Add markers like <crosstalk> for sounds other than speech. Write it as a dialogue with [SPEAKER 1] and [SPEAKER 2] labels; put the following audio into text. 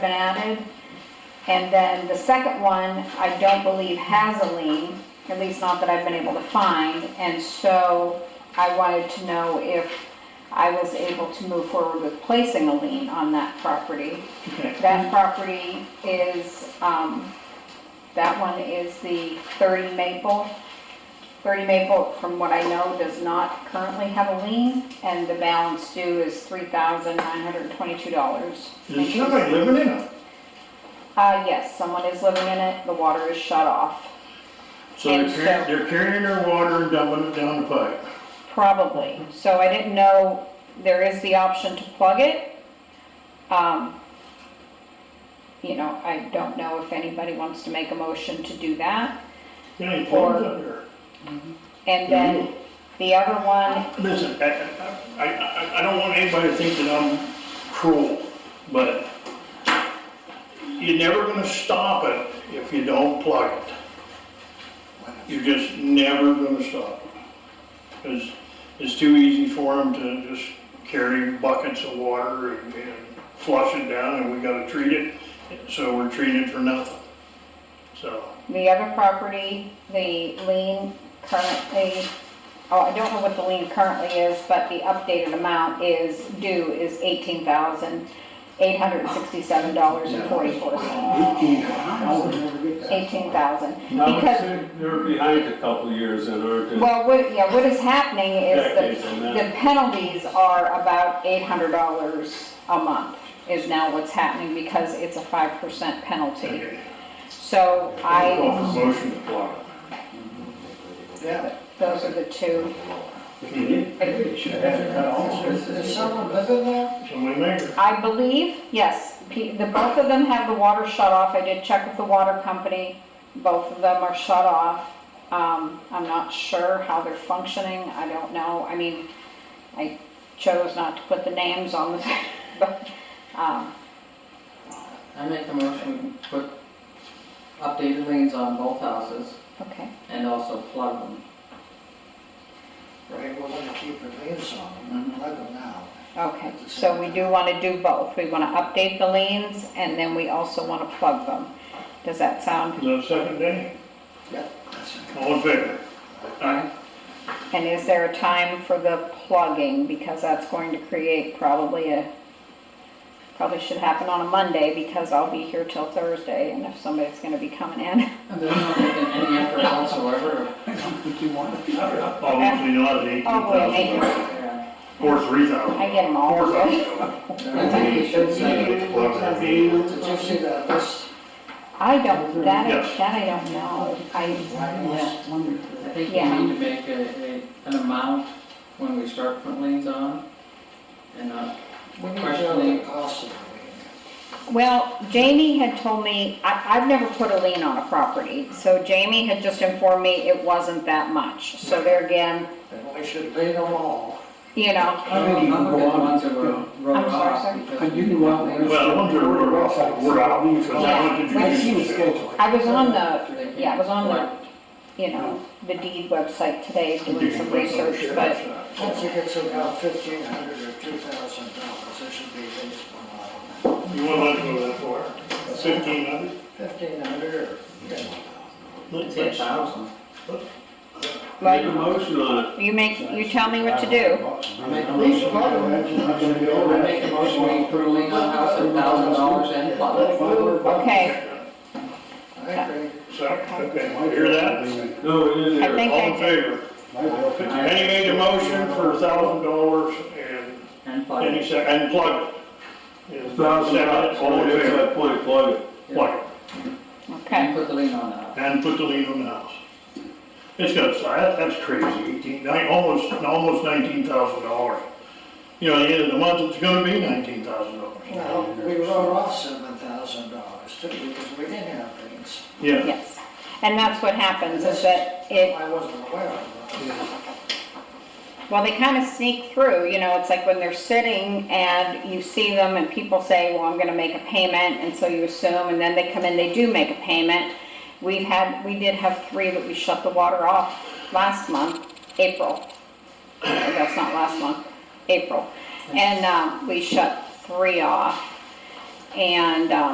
[SPEAKER 1] been added. And then the second one, I don't believe has a lien, at least not that I've been able to find. And so I wanted to know if I was able to move forward with placing a lien on that property.
[SPEAKER 2] Okay.
[SPEAKER 1] That property is, um, that one is the 30 Maple. 30 Maple, from what I know, does not currently have a lien, and the balance due is $3,922.
[SPEAKER 2] Is somebody living in it?
[SPEAKER 1] Uh, yes, someone is living in it, the water is shut off,
[SPEAKER 2] So they're
[SPEAKER 1] And
[SPEAKER 2] carrying,
[SPEAKER 1] so-
[SPEAKER 2] they're carrying their water and dumping it down the pipe.
[SPEAKER 1] probably. So I didn't know there is the option to plug it. Um, You know, I don't know if anybody wants to make a motion to do that.
[SPEAKER 2] Got any ponds up there?
[SPEAKER 1] And then the other one,
[SPEAKER 2] Listen, I, I, I, I don't want anybody to think that I'm cruel, but you're never gonna stop it if you don't plug it. You're just never gonna stop it. Cause it's too easy for them to just carry buckets of water and and flush it down and we gotta treat it, so we're treating it for nothing. So,
[SPEAKER 1] the other property, the lien currently, oh, I don't know what the lien currently is, but the updated amount is due is $18,867.44.
[SPEAKER 3] Eighteen, I would never get that.
[SPEAKER 1] 18,000.
[SPEAKER 4] I would
[SPEAKER 1] Because-
[SPEAKER 4] say they're behind a couple of years and aren't in
[SPEAKER 1] Well, what, yeah, what is happening is
[SPEAKER 4] decades
[SPEAKER 1] the,
[SPEAKER 4] on
[SPEAKER 1] the
[SPEAKER 4] that.
[SPEAKER 1] penalties are about eight hundred dollars a month is now what's happening because it's a five percent penalty.
[SPEAKER 2] okay.
[SPEAKER 1] So I,
[SPEAKER 2] Call for motion to plug it.
[SPEAKER 3] Yeah.
[SPEAKER 1] those are the two.
[SPEAKER 3] Maybe it should have it cut off. Is is someone living there?
[SPEAKER 2] Somebody make it.
[SPEAKER 1] I believe, yes, P- the, both of them have the water shut off. I did check with the water company. Both of them are shut off. Um, I'm not sure how they're functioning. I don't know. I mean, I chose not to put the names on the, <laughs> but, um,
[SPEAKER 5] I make the motion, we put updated liens on both houses
[SPEAKER 1] Okay,
[SPEAKER 5] and also plug them.
[SPEAKER 3] Right, we're gonna keep the leaves on them, let them now.
[SPEAKER 1] okay, so we do want to do both. We want to update the liens and then we also want to plug them. Does that sound,
[SPEAKER 2] Is that second day?
[SPEAKER 3] Yep. That's it.
[SPEAKER 2] All in favor? Aye.
[SPEAKER 1] and is there a time for the plugging? Because that's going to create probably a, probably should happen on a Monday because I'll be here till Thursday and if somebody's going to be coming in.
[SPEAKER 5] And they're not making any effort whatsoever.
[SPEAKER 3] I don't think you want it.
[SPEAKER 2] Obviously not at eighteen
[SPEAKER 1] Oh, wait,
[SPEAKER 2] thousand, or three thousand.
[SPEAKER 1] I get them all.
[SPEAKER 2] Four thousand.
[SPEAKER 5] I think we should say,
[SPEAKER 3] Did you see that list?
[SPEAKER 1] I don't, that, I-
[SPEAKER 2] Yes.
[SPEAKER 1] that I don't know. I,
[SPEAKER 3] Right, wonderful.
[SPEAKER 5] I think we
[SPEAKER 1] Yeah.
[SPEAKER 5] need to make a, a, an amount when we start putting liens on. And not,
[SPEAKER 3] We need to know the cost of the
[SPEAKER 1] Well, Jamie had told me, I, I've never put a lien on a property, so Jamie had just informed me it wasn't that much. So there again,
[SPEAKER 3] lien. And we should pay them all.
[SPEAKER 1] you know,
[SPEAKER 5] I don't
[SPEAKER 6] you
[SPEAKER 5] look
[SPEAKER 6] go
[SPEAKER 5] at the
[SPEAKER 6] on.
[SPEAKER 5] ones that were wrote
[SPEAKER 1] I'm sorry,
[SPEAKER 5] off
[SPEAKER 1] sir?
[SPEAKER 5] because
[SPEAKER 6] I
[SPEAKER 5] we
[SPEAKER 6] didn't want
[SPEAKER 5] didn't
[SPEAKER 6] to-
[SPEAKER 5] think
[SPEAKER 2] Well, the ones that were off, were out, because that one did you?
[SPEAKER 6] I've seen the schedule.
[SPEAKER 1] I was on
[SPEAKER 5] they could
[SPEAKER 1] the, yeah, I was on the,
[SPEAKER 5] collect.
[SPEAKER 1] you know, the deed website today doing
[SPEAKER 2] Did you
[SPEAKER 1] some
[SPEAKER 2] put some
[SPEAKER 1] research,
[SPEAKER 2] shit
[SPEAKER 1] but
[SPEAKER 2] outside?
[SPEAKER 3] Once it gets about fifteen hundred or two thousand dollars, there should be at least one lot on
[SPEAKER 2] You want to go that far? Fifteen hundred?
[SPEAKER 3] that. Fifteen hundred or, yeah.
[SPEAKER 5] It's eight thousand.
[SPEAKER 4] Make a motion on it.
[SPEAKER 1] you make, you tell me what to do.
[SPEAKER 5] I make a
[SPEAKER 3] Lease
[SPEAKER 5] motion,
[SPEAKER 3] plug them.
[SPEAKER 5] I make a motion, we put a lien on a house at thousand dollars and plug it.
[SPEAKER 1] Okay,
[SPEAKER 3] I agree.
[SPEAKER 2] So, okay, hear that?
[SPEAKER 4] No, it is
[SPEAKER 1] I
[SPEAKER 4] there.
[SPEAKER 1] think
[SPEAKER 2] All in
[SPEAKER 1] I,
[SPEAKER 2] favor? Penny made a motion for a thousand dollars and
[SPEAKER 5] And plug
[SPEAKER 2] Penny
[SPEAKER 5] it.
[SPEAKER 2] said, and plug it. Is that
[SPEAKER 4] Thousand
[SPEAKER 2] second?
[SPEAKER 4] dollars,
[SPEAKER 2] All in
[SPEAKER 4] only at
[SPEAKER 2] favor?
[SPEAKER 4] that point, plug it.
[SPEAKER 2] Plug it.
[SPEAKER 1] okay,
[SPEAKER 5] And put the lien on the house.
[SPEAKER 2] And put the lien on the house. It's got, so that, that's crazy, eighteen, nine, almost, almost nineteen thousand dollars. You know, at the end of the month, it's gonna be nineteen thousand dollars.
[SPEAKER 3] Well, we wrote off seven thousand dollars too, because we didn't have things.
[SPEAKER 2] Yeah,
[SPEAKER 1] yes. And that's what happens is that it,
[SPEAKER 3] I wasn't aware of that.
[SPEAKER 1] Well, they kind of sneak through, you know, it's like when they're sitting and you see them and people say, well, I'm gonna make a payment, and so you assume, and then they come in, they do make a payment. We've had, we did have three that we shut the water off last month, April. No, That's not last month, April. And, um, we shut three off. And, um,